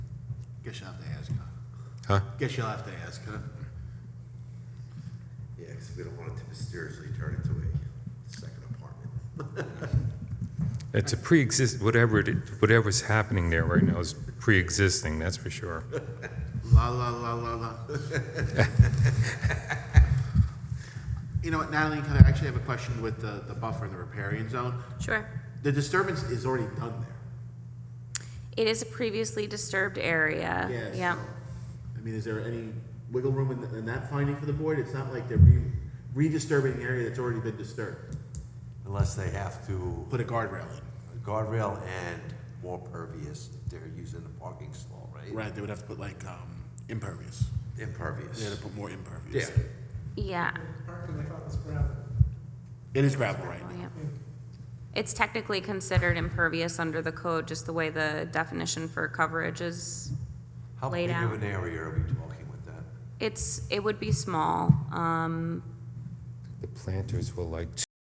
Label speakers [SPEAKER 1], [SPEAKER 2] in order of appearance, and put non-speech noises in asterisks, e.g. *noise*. [SPEAKER 1] Guess you'll have to ask, huh?
[SPEAKER 2] Huh?
[SPEAKER 1] Guess you'll have to ask, huh?
[SPEAKER 3] Yeah, because we don't want it to mysteriously turn into a second apartment.
[SPEAKER 2] It's a pre-exist, whatever it, whatever's happening there right now is pre-existing, that's for sure.
[SPEAKER 1] La, la, la, la, *laughs* la. You know what, Natalie, can I actually have a question with the, the buffer and the riparian zone?
[SPEAKER 4] Sure.
[SPEAKER 1] The disturbance is already done there.
[SPEAKER 4] It is a previously disturbed area.
[SPEAKER 1] Yeah,
[SPEAKER 4] Yep.
[SPEAKER 1] so, I mean, is there any wiggle room in, th- in that finding for the board? It's not like they're re- redisturbing an area that's already been disturbed.
[SPEAKER 3] Unless they have to,
[SPEAKER 1] Put a guardrail
[SPEAKER 3] guardrail and more pervious, if they're using the parking stall,
[SPEAKER 1] in. Right, they would have to put like, um, impervious. They had
[SPEAKER 3] Impervious.
[SPEAKER 1] to put more impervious.
[SPEAKER 3] Yeah.
[SPEAKER 4] Yeah.
[SPEAKER 5] Parking like on this gravel.
[SPEAKER 1] It is gravel right now.
[SPEAKER 4] Oh, Yep. It's technically considered impervious under the code, just the way the definition for coverage is.
[SPEAKER 3] How
[SPEAKER 4] Laid
[SPEAKER 3] big of
[SPEAKER 4] out.
[SPEAKER 3] an area are we talking with that?
[SPEAKER 4] It's, it would be small. Um,
[SPEAKER 2] The planters were like